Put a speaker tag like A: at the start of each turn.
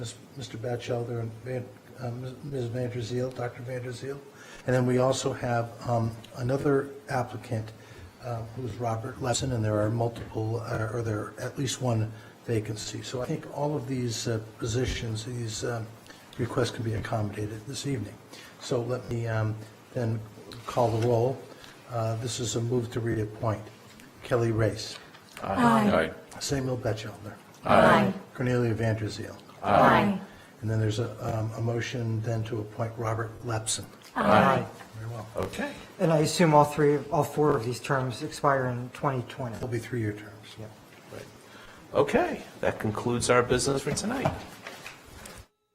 A: Ms. Mr. Batchelder and Van- uh, Ms. Vanderzeel, Dr. Vanderzeel. And then we also have um, another applicant, uh, who's Robert Lesson, and there are multiple, uh, or there are at least one vacancy. So I think all of these uh, positions, these um, requests can be accommodated this evening. So let me um, then call the roll. Uh, This is a move to reappoint. Kelly Race,
B: Aye.
A: Samuel Batchelder,
B: Aye.
A: Cornelia Vanderzeel.
B: Aye.
A: And then there's a, um, a motion then to appoint Robert Lapson.
C: Aye.
A: Very well.
B: Okay.
C: And I assume all three, all four of these terms expire in 2020.
A: They'll be three-year terms.
C: Yeah.
B: Okay, that concludes our business for tonight.